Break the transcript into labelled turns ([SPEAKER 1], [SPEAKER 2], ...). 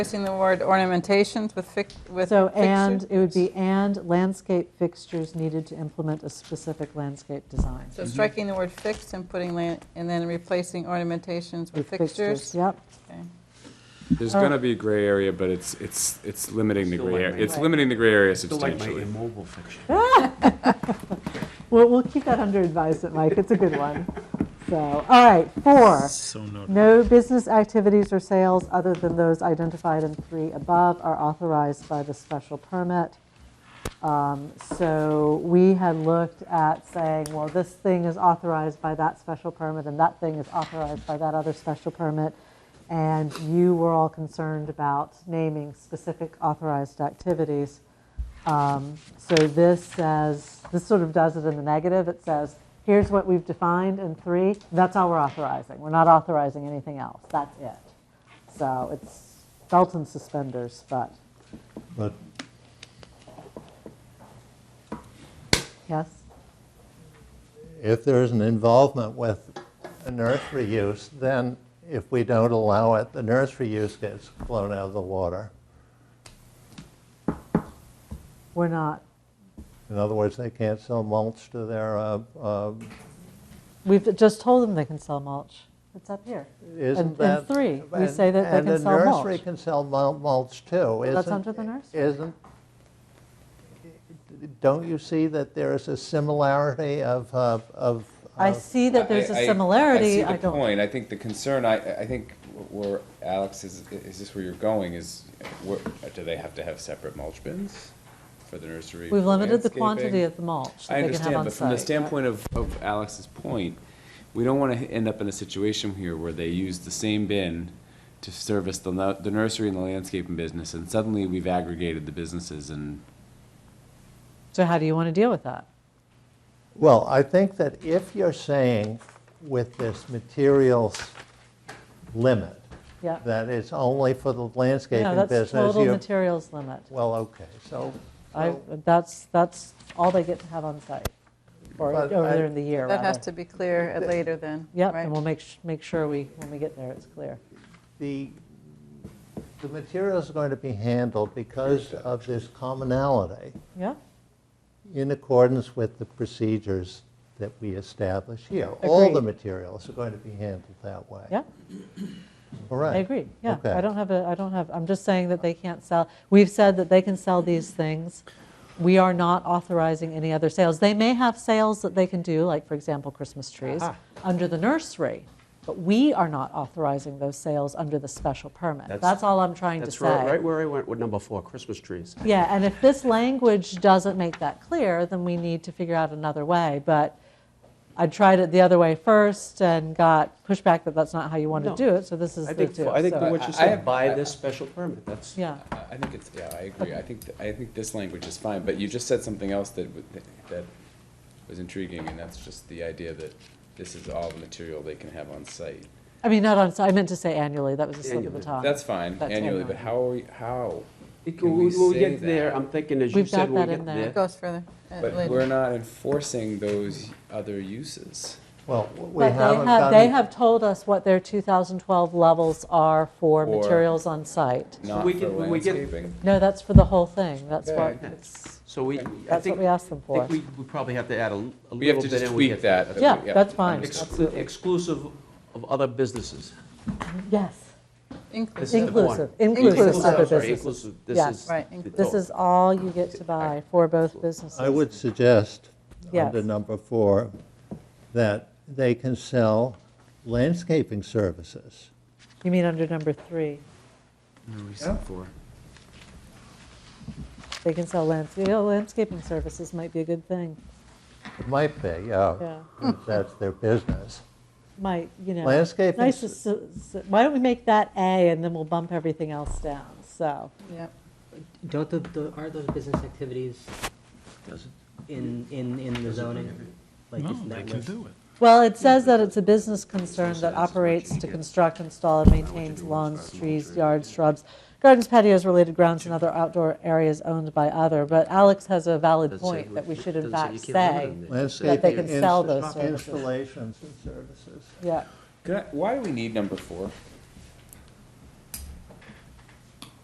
[SPEAKER 1] replacing the word ornamentations with fic, with
[SPEAKER 2] So and,
[SPEAKER 1] fixture?
[SPEAKER 2] it would be and landscape fixtures needed to implement a specific landscape design.
[SPEAKER 1] So striking the word fixed and putting, lan- and then replacing ornamentations with
[SPEAKER 2] With
[SPEAKER 1] fixtures?
[SPEAKER 2] Yep,
[SPEAKER 1] Okay.
[SPEAKER 3] There's
[SPEAKER 2] Oh.
[SPEAKER 3] gonna be gray area, but it's, it's, it's limiting the
[SPEAKER 4] Still
[SPEAKER 3] gray,
[SPEAKER 4] like
[SPEAKER 3] area.
[SPEAKER 4] my-
[SPEAKER 3] it's limiting the gray area
[SPEAKER 4] Still like my
[SPEAKER 3] substantially.
[SPEAKER 4] immobile fiction.
[SPEAKER 2] well, we'll keep that under advisement, Mike, it's a good one. So, all right, four,
[SPEAKER 5] So noted.
[SPEAKER 2] no business activities or sales other than those identified in three above are authorized by the special permit. Um, So we had looked at saying, well, this thing is authorized by that special permit, and that thing is authorized by that other special permit. And you were all concerned about naming specific authorized activities. Um, So this says, this sort of does it in the negative. It says, here's what we've defined in three, that's all we're authorizing. We're not authorizing anything else, that's it. So it's belt and suspenders, but,
[SPEAKER 6] But
[SPEAKER 2] yes?
[SPEAKER 6] if there's an involvement with a nursery use, then if we don't allow it, the nursery use gets blown out of the water.
[SPEAKER 2] We're not,
[SPEAKER 6] In other words, they can't sell mulch to their, uh, uh,
[SPEAKER 2] we've just told them they can sell mulch. It's up here. And-
[SPEAKER 6] isn't
[SPEAKER 2] and
[SPEAKER 6] that?
[SPEAKER 2] three, we
[SPEAKER 6] and-
[SPEAKER 2] say that they can sell
[SPEAKER 6] And the nursery
[SPEAKER 2] mulch.
[SPEAKER 6] can sell mul- mulch too, isn't?
[SPEAKER 2] That's under the nursery.
[SPEAKER 6] Isn't, don't you see that there is a similarity of, uh, of?
[SPEAKER 2] I
[SPEAKER 6] of-
[SPEAKER 2] see that there's
[SPEAKER 7] I- I-
[SPEAKER 2] a similarity.
[SPEAKER 7] I see the
[SPEAKER 2] don't-
[SPEAKER 7] point, I think the concern, I, I think where, Alex, is, is this where you're going, is, where, do they have to have separate mulch bins for the nursery?
[SPEAKER 2] We've
[SPEAKER 7] for
[SPEAKER 2] limited the
[SPEAKER 7] landscaping?
[SPEAKER 2] quantity of the mulch
[SPEAKER 7] I
[SPEAKER 2] that they can have
[SPEAKER 7] understand,
[SPEAKER 2] on
[SPEAKER 7] but from the
[SPEAKER 2] site.
[SPEAKER 7] standpoint
[SPEAKER 3] Point of, of Alex's point, we don't wanna end up in a situation here where they use the same bin to service the, nu- the nursery and the landscaping business, and suddenly we've aggregated the businesses and
[SPEAKER 2] So how do you want to deal with that?
[SPEAKER 6] Well, I think that if you're saying with this materials limit,
[SPEAKER 2] Yeah.
[SPEAKER 6] that it's only for the landscaping
[SPEAKER 2] No, that's
[SPEAKER 6] business.
[SPEAKER 2] total
[SPEAKER 6] you-
[SPEAKER 2] materials limit.
[SPEAKER 6] Well, okay, so,
[SPEAKER 2] I, that's, that's all they get to have on site, or
[SPEAKER 6] But
[SPEAKER 2] over
[SPEAKER 6] I-
[SPEAKER 2] there in the year, rather.
[SPEAKER 1] That has to be clear at later then,
[SPEAKER 2] Yep,
[SPEAKER 1] right?
[SPEAKER 2] and we'll make, sh- make sure we, when we get there, it's clear.
[SPEAKER 6] the, the materials are going to be handled because of this commonality
[SPEAKER 2] Yeah,
[SPEAKER 6] in accordance with the procedures that we establish here. All the
[SPEAKER 2] Agreed.
[SPEAKER 6] materials are going to be handled that way.
[SPEAKER 2] yeah,
[SPEAKER 6] Correct.
[SPEAKER 2] I agree, yeah.
[SPEAKER 6] Okay.
[SPEAKER 2] I don't have a, I don't have, I'm just saying that they can't sell, we've said that they can sell these things. We are not authorizing any other sales. They may have sales that they can do, like, for example, Christmas trees, under the nursery, but we are not authorizing those sales under the special permit.
[SPEAKER 4] That's-
[SPEAKER 2] That's all I'm trying to
[SPEAKER 4] That's
[SPEAKER 2] say.
[SPEAKER 4] right, right where I went with number four, Christmas trees.
[SPEAKER 2] Yeah, and if this language doesn't make that clear, then we need to figure out another way. But I tried it the other way first and got pushback that that's not how you want to
[SPEAKER 4] No.
[SPEAKER 2] do it, so this is
[SPEAKER 4] I
[SPEAKER 2] the
[SPEAKER 4] think,
[SPEAKER 2] two.
[SPEAKER 4] I think
[SPEAKER 2] so-
[SPEAKER 4] what you
[SPEAKER 7] I- I-
[SPEAKER 4] said, by this special permit, that's.
[SPEAKER 2] Yeah,
[SPEAKER 7] I I think it's, yeah, I agree, I think, th- I think this language is fine, but you just said something else that, w- that- that was intriguing, and that's just the idea that this is all the material they can have on site.
[SPEAKER 2] I mean, not on, I meant to say annually, that was a slip of the
[SPEAKER 4] Annually.
[SPEAKER 2] tongue.
[SPEAKER 7] That's fine,
[SPEAKER 2] Uh, That's
[SPEAKER 7] annually, but
[SPEAKER 2] annually.
[SPEAKER 7] how are we, how?
[SPEAKER 4] It-
[SPEAKER 7] Can
[SPEAKER 4] When
[SPEAKER 7] we
[SPEAKER 4] we
[SPEAKER 7] say
[SPEAKER 4] get there,
[SPEAKER 7] that?
[SPEAKER 4] I'm thinking, as you
[SPEAKER 2] We've
[SPEAKER 4] said,
[SPEAKER 2] got
[SPEAKER 4] when
[SPEAKER 2] that
[SPEAKER 4] we
[SPEAKER 2] in
[SPEAKER 4] get
[SPEAKER 2] there.
[SPEAKER 4] there.
[SPEAKER 1] It goes further at
[SPEAKER 7] But
[SPEAKER 1] later.
[SPEAKER 7] we're not enforcing those other uses.
[SPEAKER 6] Well, we
[SPEAKER 2] But they
[SPEAKER 6] haven't
[SPEAKER 2] have,
[SPEAKER 6] done.
[SPEAKER 2] they have told us what their 2012 levels are for
[SPEAKER 7] Or-
[SPEAKER 2] materials on site.
[SPEAKER 7] Not
[SPEAKER 4] we
[SPEAKER 7] for
[SPEAKER 4] get- we get-
[SPEAKER 7] landscaping.
[SPEAKER 2] No, that's for the whole thing, that's what,
[SPEAKER 7] Okay.
[SPEAKER 2] it's-
[SPEAKER 4] So we, I
[SPEAKER 2] that's what
[SPEAKER 4] think,
[SPEAKER 2] we
[SPEAKER 4] I
[SPEAKER 2] asked them for.
[SPEAKER 4] think we we probably have to add a l- a little bit.
[SPEAKER 7] We have to just
[SPEAKER 4] and we
[SPEAKER 7] tweak
[SPEAKER 4] get there.
[SPEAKER 7] that.
[SPEAKER 2] Yeah, that's fine.
[SPEAKER 7] understood.
[SPEAKER 4] Exclu- Exclusive of other businesses.
[SPEAKER 2] Yes,
[SPEAKER 4] This
[SPEAKER 1] Inclusive.
[SPEAKER 4] is the one.
[SPEAKER 2] inclusive, inclusive
[SPEAKER 4] I'm
[SPEAKER 2] other
[SPEAKER 4] sorry,
[SPEAKER 2] businesses.
[SPEAKER 4] Inclusive, this
[SPEAKER 2] Yeah.
[SPEAKER 4] is.
[SPEAKER 1] Right,
[SPEAKER 4] the
[SPEAKER 1] inclusive.
[SPEAKER 2] This
[SPEAKER 4] total.
[SPEAKER 2] is all you get to buy for both businesses.
[SPEAKER 6] I would suggest, under
[SPEAKER 2] Yes.
[SPEAKER 6] number four, that they can sell landscaping services.
[SPEAKER 2] You mean under number three? They can sell landscaping, landscaping services might be a good thing,
[SPEAKER 6] It might be, yeah,
[SPEAKER 2] Yeah.
[SPEAKER 6] if that's their business.
[SPEAKER 2] might, you know.
[SPEAKER 6] Landscaping
[SPEAKER 2] nice to
[SPEAKER 6] s-
[SPEAKER 2] s- s- Why don't we make that A and then we'll bump everything else down, so.
[SPEAKER 1] Yep.
[SPEAKER 8] Don't the, the, aren't those business activities in, in, in the zoning? Like,
[SPEAKER 5] No,
[SPEAKER 8] isn't
[SPEAKER 5] they
[SPEAKER 8] that
[SPEAKER 5] can
[SPEAKER 8] list-
[SPEAKER 5] do it.
[SPEAKER 2] Well, it says that it's a business concern that operates to construct, install, and maintains lawns, trees, yards, shrubs, gardens, patios, related grounds, and other outdoor areas owned by other. But Alex has a valid
[SPEAKER 4] Doesn't say
[SPEAKER 2] point
[SPEAKER 4] who-
[SPEAKER 2] that we should in
[SPEAKER 4] doesn't
[SPEAKER 2] fact
[SPEAKER 4] you can't
[SPEAKER 2] say,
[SPEAKER 4] limit them. It just says
[SPEAKER 6] Landscaping.
[SPEAKER 2] they can
[SPEAKER 6] ins-
[SPEAKER 2] sell those services.
[SPEAKER 6] Installations and services.
[SPEAKER 2] yeah.
[SPEAKER 7] Could I- Why do we need number four?